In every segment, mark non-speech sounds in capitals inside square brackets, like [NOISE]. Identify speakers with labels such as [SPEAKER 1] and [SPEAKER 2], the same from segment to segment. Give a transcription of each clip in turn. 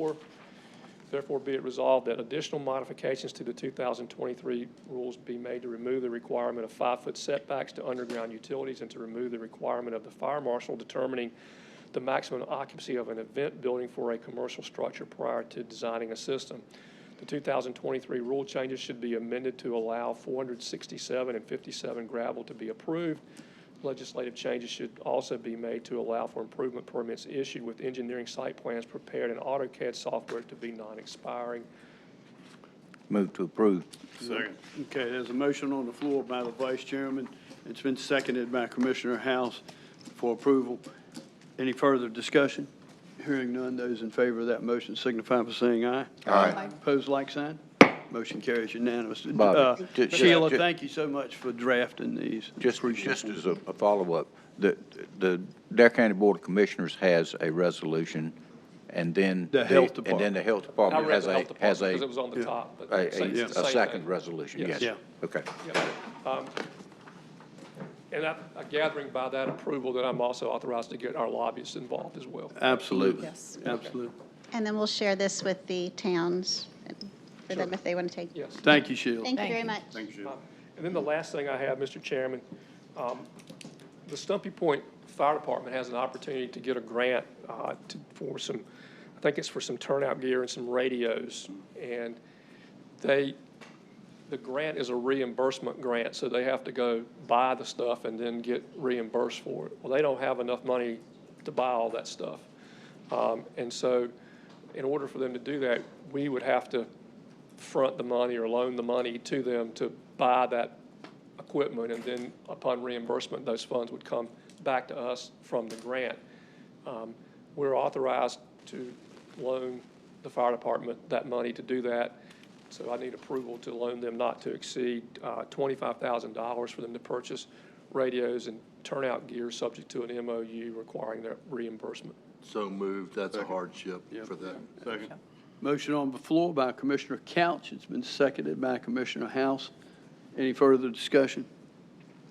[SPEAKER 1] Four, Therefore, be it resolved that additional modifications to the 2023 rules be made to remove the requirement of five-foot setbacks to underground utilities and to remove the requirement of the fire marshal determining the maximum occupancy of an event building for a commercial structure prior to designing a system. The 2023 rule changes should be amended to allow 467 and 57 gravel to be approved. Legislative changes should also be made to allow for improvement permits issued with engineering site plans prepared in AutoCAD software to be non-expiring.
[SPEAKER 2] Move to approve.
[SPEAKER 3] Second. Okay, there's a motion on the floor by the vice chairman. It's been seconded by Commissioner House for approval. Any further discussion? Hearing none, those in favor of that motion signify by saying aye. Aye. Pose like sign. Motion carries unanimous.
[SPEAKER 2] Bobby,
[SPEAKER 3] Uh,
[SPEAKER 2] ju- ju-
[SPEAKER 3] Sheila,
[SPEAKER 2] ju-
[SPEAKER 3] thank you so much for drafting these.
[SPEAKER 2] Just, just as a, a follow-up, the, the Dare County Board of Commissioners has a resolution, and then.
[SPEAKER 3] The health
[SPEAKER 2] And then the health department
[SPEAKER 1] I read
[SPEAKER 2] has
[SPEAKER 1] the
[SPEAKER 2] a,
[SPEAKER 1] health
[SPEAKER 2] has
[SPEAKER 1] department
[SPEAKER 2] a,
[SPEAKER 1] because it was on the top, but
[SPEAKER 2] a-
[SPEAKER 1] it's the
[SPEAKER 2] a,
[SPEAKER 1] same
[SPEAKER 2] a
[SPEAKER 1] thing.
[SPEAKER 2] second resolution,
[SPEAKER 1] Yes.
[SPEAKER 2] yes.
[SPEAKER 3] Yeah.
[SPEAKER 2] Okay.
[SPEAKER 1] Um, And I- I'm gathering by that approval that I'm also authorized to get our lobbyists involved as well.
[SPEAKER 3] Absolutely.
[SPEAKER 4] Yes.
[SPEAKER 3] Absolutely.
[SPEAKER 5] And then we'll share this with the towns for them if they want to take.
[SPEAKER 1] Yes.
[SPEAKER 3] Thank you, Sheila.
[SPEAKER 5] Thank you
[SPEAKER 4] Thank
[SPEAKER 5] very
[SPEAKER 4] you.
[SPEAKER 5] much.
[SPEAKER 1] Uh, And then the last thing I have, Mr. Chairman, um, the Stumpy Point Fire Department has an opportunity to get a grant uh, to- for some, I think it's for some turnout gear and some radios. And they, the grant is a reimbursement grant, so they have to go buy the stuff and then get reimbursed for it. Well, they don't have enough money to buy all that stuff. Um, And so in order for them to do that, we would have to front the money or loan the money to them to buy that equipment. And then upon reimbursement, those funds would come back to us from the grant. Um, We're authorized to loan the fire department that money to do that. So I need approval to loan them not to exceed uh, $25,000 for them to purchase radios and turnout gear subject to an MOU requiring their reimbursement.
[SPEAKER 6] So moved, that's a hardship for that.
[SPEAKER 3] Motion on the floor by Commissioner Couch. It's been seconded by Commissioner House. Any further discussion?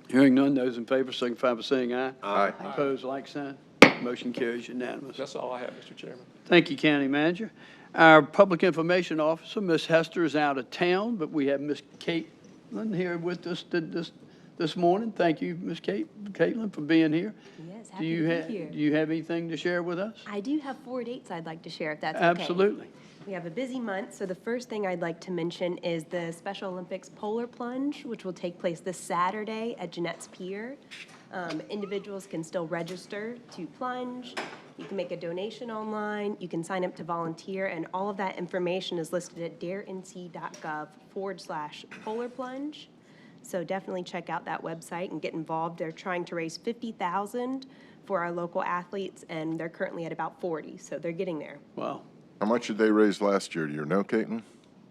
[SPEAKER 3] Hearing none, those in favor signify by saying aye.
[SPEAKER 2] Aye.
[SPEAKER 3] Opposed, like sign. Motion carries unanimous.
[SPEAKER 1] That's all I have, Mr. Chairman.
[SPEAKER 3] Thank you, County Manager. Our Public Information Officer, Ms. Hester, is out of town, but we have Ms. Caitlin here with us th- this, this morning. Thank you, Ms. Cait- Caitlin, for being here.
[SPEAKER 7] Yes,
[SPEAKER 3] Do
[SPEAKER 7] happy
[SPEAKER 3] you
[SPEAKER 7] to
[SPEAKER 3] ha-
[SPEAKER 7] be here.
[SPEAKER 3] Do you have anything to share with us?
[SPEAKER 7] I do have four dates I'd like to share, if that's okay.
[SPEAKER 3] Absolutely.
[SPEAKER 7] We have a busy month, so the first thing I'd like to mention is the Special Olympics Polar Plunge, which will take place this Saturday at Jeanette's Pier. Um, Individuals can still register to plunge. You can make a donation online. You can sign up to volunteer, and all of that information is listed at darenc.gov/polarplunge. So definitely check out that website and get involved. They're trying to raise 50,000 for our local athletes, and they're currently at about 40, so they're getting there.
[SPEAKER 3] Wow.
[SPEAKER 8] How much did they raise last year? Do you know, Caitlin?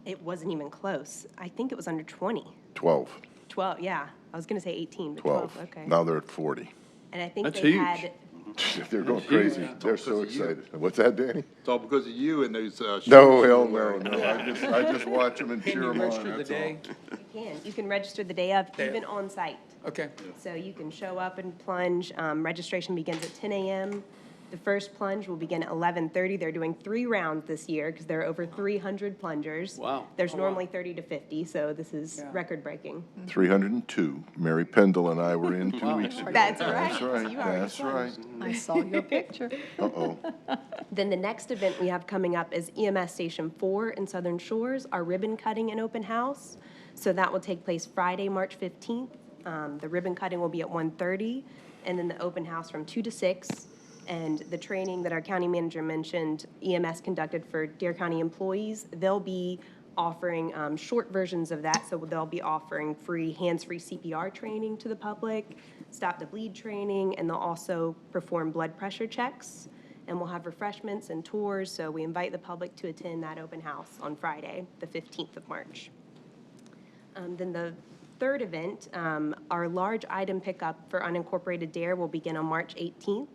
[SPEAKER 7] It wasn't even close. I think it was under 20.
[SPEAKER 8] 12.
[SPEAKER 7] 12, yeah. I was going to say 18, but 12,
[SPEAKER 8] 12.
[SPEAKER 7] okay.
[SPEAKER 8] Now they're at 40.
[SPEAKER 7] And I think
[SPEAKER 3] That's
[SPEAKER 7] they
[SPEAKER 3] huge.
[SPEAKER 7] had,
[SPEAKER 8] [LAUGHS] They're going crazy. They're so
[SPEAKER 6] Because of you.
[SPEAKER 8] excited. What's that, Danny?
[SPEAKER 6] It's all because of you and those, uh.
[SPEAKER 8] No,
[SPEAKER 6] shorts you
[SPEAKER 8] hell,
[SPEAKER 6] were
[SPEAKER 8] no,
[SPEAKER 6] wearing.
[SPEAKER 8] no. I just, I just watch them and cheer [LAUGHS] them on, that's all.
[SPEAKER 7] you can, you can register the day of, even on site.
[SPEAKER 1] Okay.
[SPEAKER 7] So you can show up and plunge. Um, Registration begins at 10 a.m. The first plunge will begin at 11:30. They're doing three rounds this year because there are over 300 plungers.
[SPEAKER 3] Wow.
[SPEAKER 7] There's normally 30 to 50, so this is record-breaking.
[SPEAKER 8] 302. Mary Pendle and I were in two weeks ago.
[SPEAKER 7] That's
[SPEAKER 8] That's
[SPEAKER 7] right.
[SPEAKER 8] right, that's right.
[SPEAKER 4] I saw your picture.
[SPEAKER 8] Uh-oh.
[SPEAKER 7] Then the next event we have coming up is EMS Station 4 in Southern Shores, our ribbon cutting and open house. So that will take place Friday, March 15th. Um, The ribbon cutting will be at 1:30, and then the open house from 2 to 6. And the training that our county manager mentioned, EMS conducted for Dare County employees, they'll be offering um, short versions of that. So they'll be offering free hands-free CPR training to the public, stop the bleed training, and they'll also perform blood pressure checks. And we'll have refreshments and tours, so we invite the public to attend that open house on Friday, the 15th of March. Um, Then the third event, um, our large item pickup for unincorporated DARE will begin on March 18th.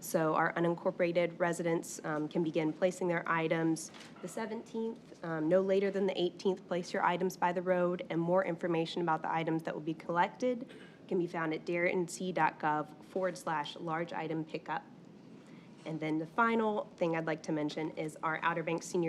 [SPEAKER 7] So our unincorporated residents um, can begin placing their items the 17th, um, no later than the 18th. Place your items by the road, and more information about the items that will be collected can be found at darenc.gov forward slash large item pickup. And then the final thing I'd like to mention is our Outer Banks Senior